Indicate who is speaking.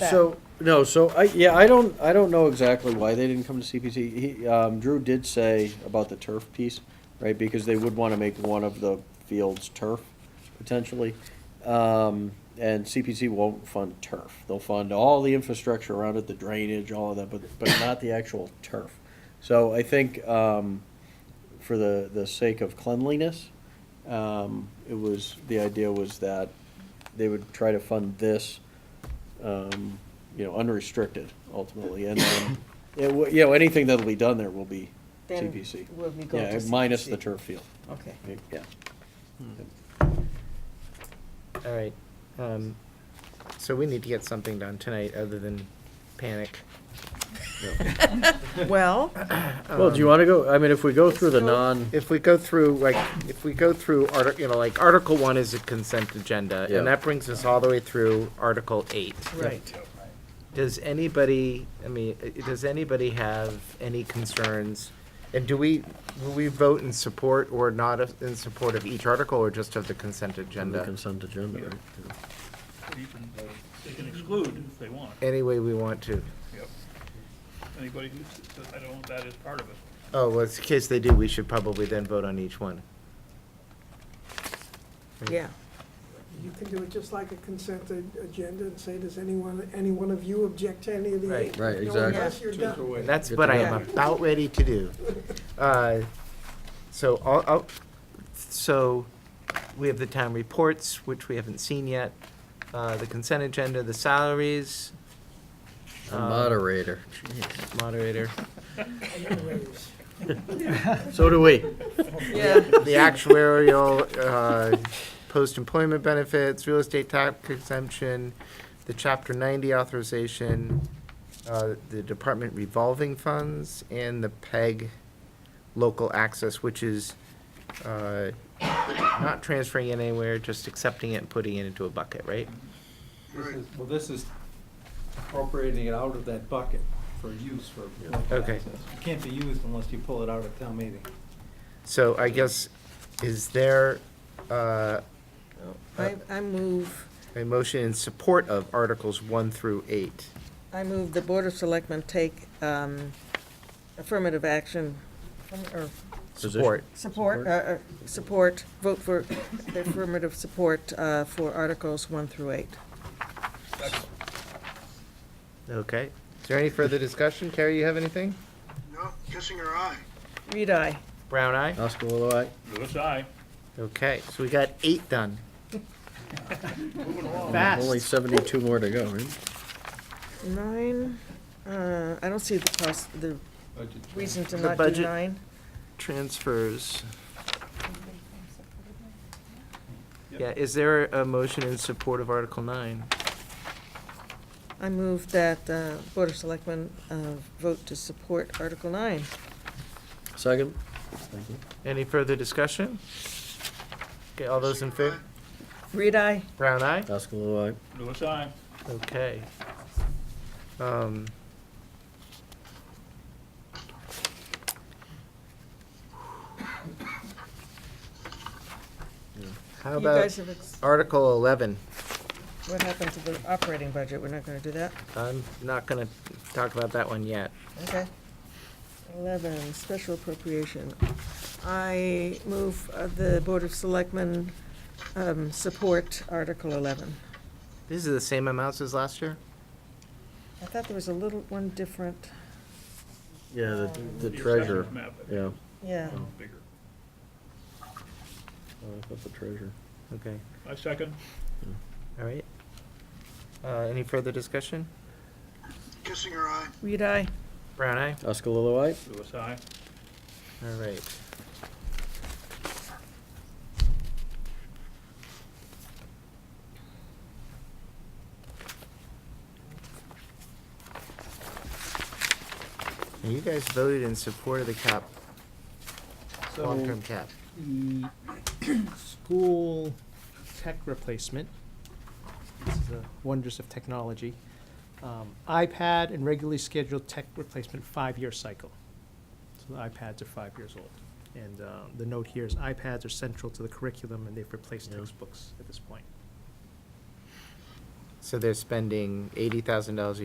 Speaker 1: back.
Speaker 2: So, no, so I, yeah, I don't, I don't know exactly why they didn't come to CPC. He, um, Drew did say about the turf piece, right, because they would wanna make one of the fields turf, potentially. Um, and CPC won't fund turf. They'll fund all the infrastructure around it, the drainage, all of that, but, but not the actual turf. So I think, um, for the, the sake of cleanliness, um, it was, the idea was that they would try to fund this, um, you know, unrestricted ultimately, and then, it wa- you know, anything that'll be done there will be
Speaker 1: Then
Speaker 2: CPC.
Speaker 1: will we go
Speaker 2: Yeah,
Speaker 1: to
Speaker 2: minus the
Speaker 1: CPC.
Speaker 2: turf field,
Speaker 1: Okay.
Speaker 2: yeah.
Speaker 3: All right, um, so we need to get something done tonight other than panic.
Speaker 1: Well,
Speaker 2: Well, do you wanna go, I mean, if we go through the
Speaker 1: So-
Speaker 2: non,
Speaker 3: If we go through, like, if we go through, arti- you know, like, Article One is a consent agenda,
Speaker 2: Yeah.
Speaker 3: and that brings us all the way through Article Eight.
Speaker 1: right.
Speaker 3: Does anybody, I mean, i- does anybody have any concerns? And do we, will we vote in support or not of- in support of each article or just of the consent
Speaker 2: on the
Speaker 3: agenda?
Speaker 2: consent agenda, right? Yeah.
Speaker 4: You can, they can exclude if they want.
Speaker 3: Any way we want to.
Speaker 4: Yep. Anybody who says, I don't want that as part of it.
Speaker 3: Oh, well, in case they do, we should probably then vote on each one.
Speaker 1: Yeah.
Speaker 5: You can do it just like a consent a- agenda and say, does anyone, any one of you object to any of the
Speaker 3: Right.
Speaker 5: eight?
Speaker 2: Right,
Speaker 5: No,
Speaker 2: exactly.
Speaker 5: unless you're done.
Speaker 3: And That's
Speaker 2: Good
Speaker 3: what
Speaker 2: to
Speaker 3: I
Speaker 1: know.
Speaker 3: am about ready to do. Uh, So, I'll, I'll- so we have the town reports, which we haven't seen yet, uh, the consent agenda, the salaries.
Speaker 2: The
Speaker 3: um,
Speaker 2: Moderator, Jeez.
Speaker 3: Moderator.
Speaker 5: Anyways.
Speaker 2: so do we,
Speaker 1: Yeah.
Speaker 3: The actuarial, uh, post-employment benefits, real estate tax exemption, the chapter ninety authorization, uh, the department revolving funds, and the PEG local access, which is, uh, not transferring it anywhere, just accepting it and putting it into a bucket, right?
Speaker 6: This is- Well, this is appropriating it out of that bucket for use for local
Speaker 3: Okay.
Speaker 6: access. It can't be used unless you pull it out of town meeting.
Speaker 3: So I guess, is there, uh,
Speaker 1: I, I move,
Speaker 3: a motion in support of Articles one through eight?
Speaker 1: I move the Board of Selectmen take um, affirmative action, or
Speaker 2: Position.
Speaker 3: Support.
Speaker 1: support, uh, uh, support, vote for the affirmative support uh, for Articles 1 through 8.
Speaker 3: Okay. Is there any further discussion? Carrie, you have anything?
Speaker 7: No, kissing her eye.
Speaker 1: Read aye.
Speaker 3: Brown eye?
Speaker 2: Oscar Lilloye.
Speaker 4: Louis, aye.
Speaker 3: Okay, so we got eight done.
Speaker 2: Only
Speaker 3: Fast.
Speaker 2: seventy-two more to go, right?
Speaker 1: Nine, uh, I don't see the cost, the reason to
Speaker 3: The
Speaker 1: not do
Speaker 3: budget.
Speaker 1: nine.
Speaker 3: Transfers. Yeah, is there a motion in support of Article nine?
Speaker 1: I move that uh, Board of Selectmen uh, vote to support Article 9.
Speaker 2: Second? Thank you.
Speaker 3: Any further discussion? Okay, all those in favor?
Speaker 1: Read aye.
Speaker 3: Brown eye?
Speaker 2: Oscar Lilloye.
Speaker 4: Louis, aye.
Speaker 3: Okay. Um. How
Speaker 1: You guys
Speaker 3: about
Speaker 1: have, ex-
Speaker 3: Article eleven?
Speaker 1: what happened to the operating budget? We're not going to do that?
Speaker 3: I'm not gonna talk about that one yet.
Speaker 1: Okay. Eleven, special appropriation. I move uh, the Board of Selectmen um, support Article eleven.
Speaker 3: These are the same amounts as last year?
Speaker 1: I thought there was a little one different,
Speaker 2: Yeah, the, the
Speaker 4: Your
Speaker 2: treasurer,
Speaker 4: second map,
Speaker 2: yeah.
Speaker 1: yeah.
Speaker 4: Bigger.
Speaker 2: Oh, I thought the treasurer.
Speaker 3: Okay,
Speaker 4: My second,
Speaker 3: all right. Uh, any further discussion?
Speaker 7: Kissing her eye.
Speaker 1: Read I.
Speaker 3: Brown eye?
Speaker 2: Oscar Lilloye.
Speaker 4: Louis, aye.
Speaker 3: All right. Now, You guys voted in support of the cap,
Speaker 8: So
Speaker 3: long-term cap.
Speaker 8: the school tech replacement, this is the wonders of technology, um, iPad and regularly scheduled tech replacement five-year cycle. So the iPads are five years old. And uh, the note here is iPads are central to the curriculum and they've replaced textbooks at this point.
Speaker 3: So they're spending eighty thousand dollars a